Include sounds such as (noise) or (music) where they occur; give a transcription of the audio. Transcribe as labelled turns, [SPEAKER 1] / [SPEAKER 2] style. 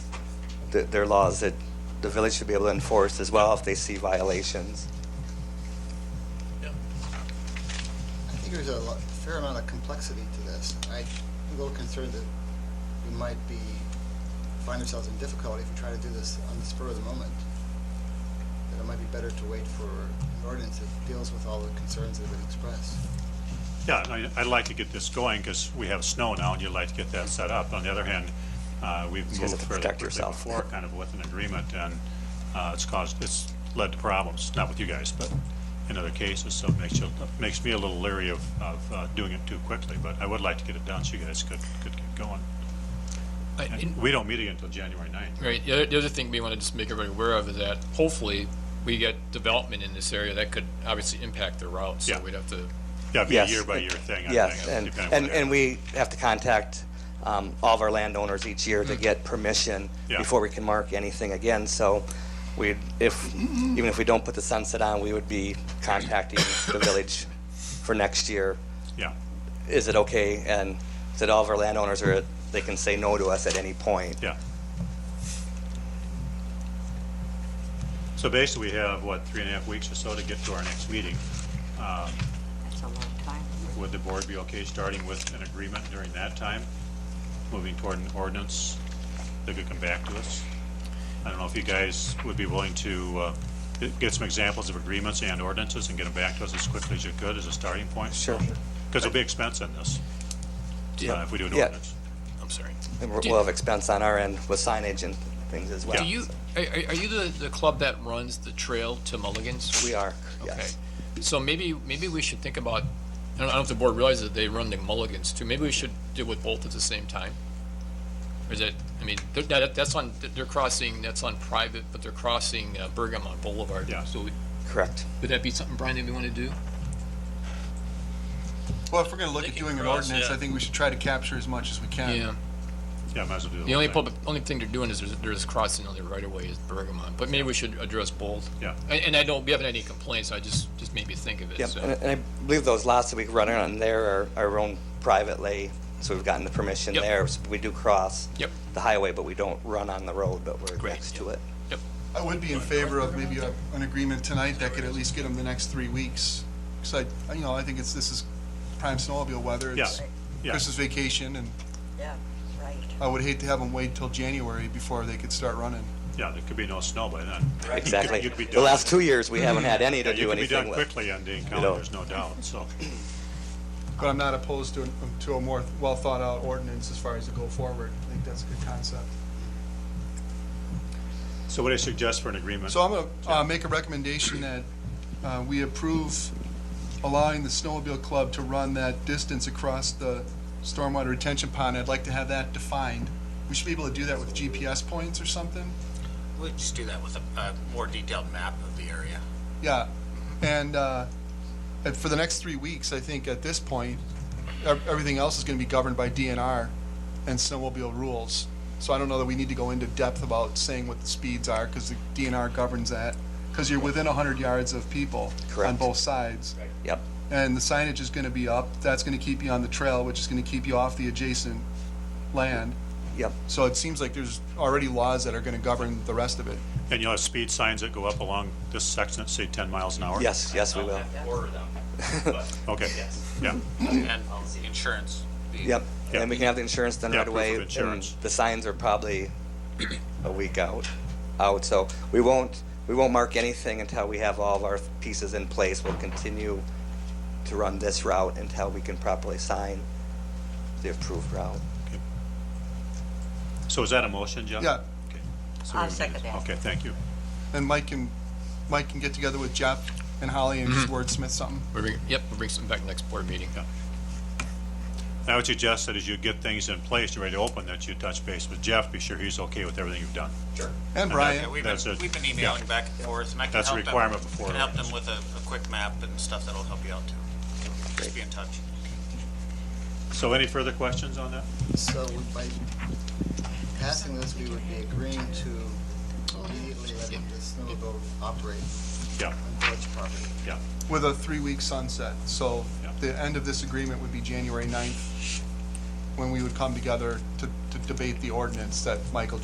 [SPEAKER 1] th- their laws that the village should be able to enforce as well if they see violations.
[SPEAKER 2] I think there's a lo- fair amount of complexity to this. I'm a little concerned that we might be, find ourselves in difficulty if we try to do this on the spur of the moment. That it might be better to wait for an ordinance that deals with all the concerns that have been expressed.
[SPEAKER 3] Yeah, and I- I'd like to get this going because we have snow now and you'd like to get that set up. On the other hand, uh, we've
[SPEAKER 1] You guys have
[SPEAKER 3] moved
[SPEAKER 1] to
[SPEAKER 3] further
[SPEAKER 1] protect
[SPEAKER 3] quickly
[SPEAKER 1] yourself.
[SPEAKER 3] before, kind of with an agreement, and uh, it's caused, it's led to problems, not with you guys, but in other cases, so it makes you, makes me a little leery of, of uh, doing it too quickly, but I would like to get it done so you guys could, could get going.
[SPEAKER 4] I-
[SPEAKER 3] And
[SPEAKER 4] and-
[SPEAKER 3] we don't meet again until January 9th.
[SPEAKER 4] Right, the other, the other thing we want to just make everybody aware of is that hopefully we get development in this area that could obviously impact the route, so
[SPEAKER 3] Yeah.
[SPEAKER 4] we'd have to,
[SPEAKER 3] Yeah, it'd be a
[SPEAKER 1] Yes.
[SPEAKER 3] year-by-year thing, I
[SPEAKER 1] Yes,
[SPEAKER 3] think,
[SPEAKER 1] and,
[SPEAKER 3] depending on
[SPEAKER 1] and,
[SPEAKER 3] what area.
[SPEAKER 1] and we have to contact um, all of our landowners each year to get permission
[SPEAKER 3] Mm. Yeah.
[SPEAKER 1] before we can mark anything again. So we, if, even if we don't put the sunset on, we would be contacting the village for next year.
[SPEAKER 3] Yeah,
[SPEAKER 1] Is it okay? And that all of our landowners are, they can say no to us at any point.
[SPEAKER 3] yeah. So basically, we have, what, three and a half weeks or so to get to our next meeting. Um,
[SPEAKER 5] That's a long time.
[SPEAKER 3] Would the board be okay starting with an agreement during that time, moving toward an ordinance that could come back to us? I don't know if you guys would be willing to uh, get- get some examples of agreements and ordinances and get them back to us as quickly as you could as a starting point?
[SPEAKER 1] Sure.
[SPEAKER 3] Because there'll be expense in this, uh,
[SPEAKER 4] Yeah.
[SPEAKER 3] if we do an
[SPEAKER 1] Yeah.
[SPEAKER 3] ordinance.
[SPEAKER 4] I'm sorry.
[SPEAKER 1] And we're-
[SPEAKER 4] Do-
[SPEAKER 1] we'll have expense on our end with signage and things as well.
[SPEAKER 4] Do you, are, are are you the, the club that runs the trail to Mulligan's?
[SPEAKER 1] We are,
[SPEAKER 4] Okay,
[SPEAKER 1] yes.
[SPEAKER 4] so maybe, maybe we should think about, I don't I don't know if the board realizes that they run the Mulligan's too, maybe we should deal with both at the same time? Or is it, I mean, they're- that, that's on, they're crossing, that's on private, but they're crossing uh, Bergamot Boulevard.
[SPEAKER 3] Yeah.
[SPEAKER 4] So would-
[SPEAKER 1] Correct.
[SPEAKER 4] would that be something, Brian, that we want to do?
[SPEAKER 6] Well, if we're gonna look at
[SPEAKER 7] Thinking
[SPEAKER 6] doing an
[SPEAKER 7] across,
[SPEAKER 6] ordinance,
[SPEAKER 7] yeah.
[SPEAKER 6] I think we should try to capture as much as we can.
[SPEAKER 4] Yeah.
[SPEAKER 3] Yeah, might as well do the
[SPEAKER 4] The
[SPEAKER 3] whole
[SPEAKER 4] only
[SPEAKER 3] thing.
[SPEAKER 4] public, only thing they're doing is there's, there's crossing on the right of way is Bergamot, but maybe we should address both.
[SPEAKER 3] Yeah.
[SPEAKER 4] And, and I don't, we haven't had any complaints, I just, just made me think of it,
[SPEAKER 1] Yep,
[SPEAKER 4] so.
[SPEAKER 1] and and I believe those lots that we run on there are our own private lay, so we've gotten the permission
[SPEAKER 4] Yep.
[SPEAKER 1] there. So We do cross
[SPEAKER 4] Yep.
[SPEAKER 1] the highway, but we don't run on the road, but we're
[SPEAKER 4] Great.
[SPEAKER 1] next to it.
[SPEAKER 6] I would be in favor of maybe a- an agreement tonight that could at least get them the next three weeks. Because I, you know, I think it's, this is prime snowmobile weather.
[SPEAKER 3] Yeah,
[SPEAKER 6] It's
[SPEAKER 3] yeah.
[SPEAKER 6] Christmas vacation, and
[SPEAKER 5] Yeah, right.
[SPEAKER 6] I would hate to have them wait till January before they could start running.
[SPEAKER 3] Yeah, there could be no snow by then. You could-
[SPEAKER 1] Exactly.
[SPEAKER 3] (laughs) you'd be
[SPEAKER 1] The
[SPEAKER 3] done.
[SPEAKER 1] last two years, we haven't had any
[SPEAKER 3] Yeah,
[SPEAKER 1] to
[SPEAKER 3] you
[SPEAKER 1] do
[SPEAKER 3] could be done
[SPEAKER 1] anything with.
[SPEAKER 3] quickly on the encounter,
[SPEAKER 1] know.
[SPEAKER 3] there's no doubt, so,
[SPEAKER 6] But I'm not opposed to, an- to a more well-thought-out ordinance as far as to go forward. I think that's a good concept.
[SPEAKER 3] so what do you suggest for an agreement?
[SPEAKER 6] So I'm going to make a recommendation that uh, we approve allowing the snowmobile club to run that distance across the stormwater retention pond. I'd like to have that defined. We should be able to do that with GPS points or something.
[SPEAKER 7] We'll just do that with a, a more detailed map of the area.
[SPEAKER 6] Yeah, and, uh, and for the next three weeks, I think at this point, ev- everything else is going to be governed by DNR and snowmobile rules. So I don't know that we need to go into depth about saying what the speeds are because the DNR governs that. Because you're within 100 yards of people on
[SPEAKER 1] Correct.
[SPEAKER 6] both sides.
[SPEAKER 1] Yep,
[SPEAKER 6] And the signage is going to be up. That's going to keep you on the trail, which is going to keep you off the adjacent land.
[SPEAKER 1] yep,
[SPEAKER 6] So it seems like there's already laws that are going to govern the rest of it.
[SPEAKER 3] And you'll have speed signs that go up along this section, that say 10 miles an hour?
[SPEAKER 1] yes, yes, we will.
[SPEAKER 7] Order them, (laughs) but,
[SPEAKER 3] Okay, yeah,
[SPEAKER 7] and insurance. the-
[SPEAKER 1] Yep,
[SPEAKER 3] Yeah.
[SPEAKER 1] and we can have the insurance done
[SPEAKER 3] Yeah,
[SPEAKER 1] right
[SPEAKER 3] proof of
[SPEAKER 1] away. and
[SPEAKER 3] insurance.
[SPEAKER 1] The signs are probably a week out, out, so we won't, we won't mark anything until we have all of our pieces in place. We'll continue to run this route until we can properly sign the approved route.
[SPEAKER 3] so is that a motion, Jeff?
[SPEAKER 6] Yeah.
[SPEAKER 3] Okay. So
[SPEAKER 5] I'll
[SPEAKER 3] we would
[SPEAKER 5] second
[SPEAKER 3] need-
[SPEAKER 5] that.
[SPEAKER 3] Okay, thank you.
[SPEAKER 6] And Mike can, Mike can get together with Jeff and Holly and just wordsmith something.
[SPEAKER 4] We'll bring, yep, we'll bring some back next board meeting.
[SPEAKER 3] I would suggest that as you get things in place, you're ready to open, that you touch base with Jeff, be sure he's okay with everything you've done.
[SPEAKER 6] And
[SPEAKER 7] Yeah,
[SPEAKER 6] Brian,
[SPEAKER 7] we've been,
[SPEAKER 3] That's it.
[SPEAKER 7] we've been emailing back and forth, and I can help
[SPEAKER 3] That's a
[SPEAKER 7] them.
[SPEAKER 3] requirement before
[SPEAKER 7] Can help them
[SPEAKER 3] ordinance.
[SPEAKER 7] with a, a quick map and stuff that'll help you out too. Just be in touch.
[SPEAKER 3] So any further questions on that?
[SPEAKER 2] So we- by passing this, we would be agreeing to immediately letting the snowmobile operate
[SPEAKER 3] Yeah,
[SPEAKER 2] on village property.
[SPEAKER 3] yeah,
[SPEAKER 6] with a three-week sunset, so
[SPEAKER 3] Yeah.
[SPEAKER 6] the end of this agreement would be January 9th, when we would come together to, to debate the ordinance that Michael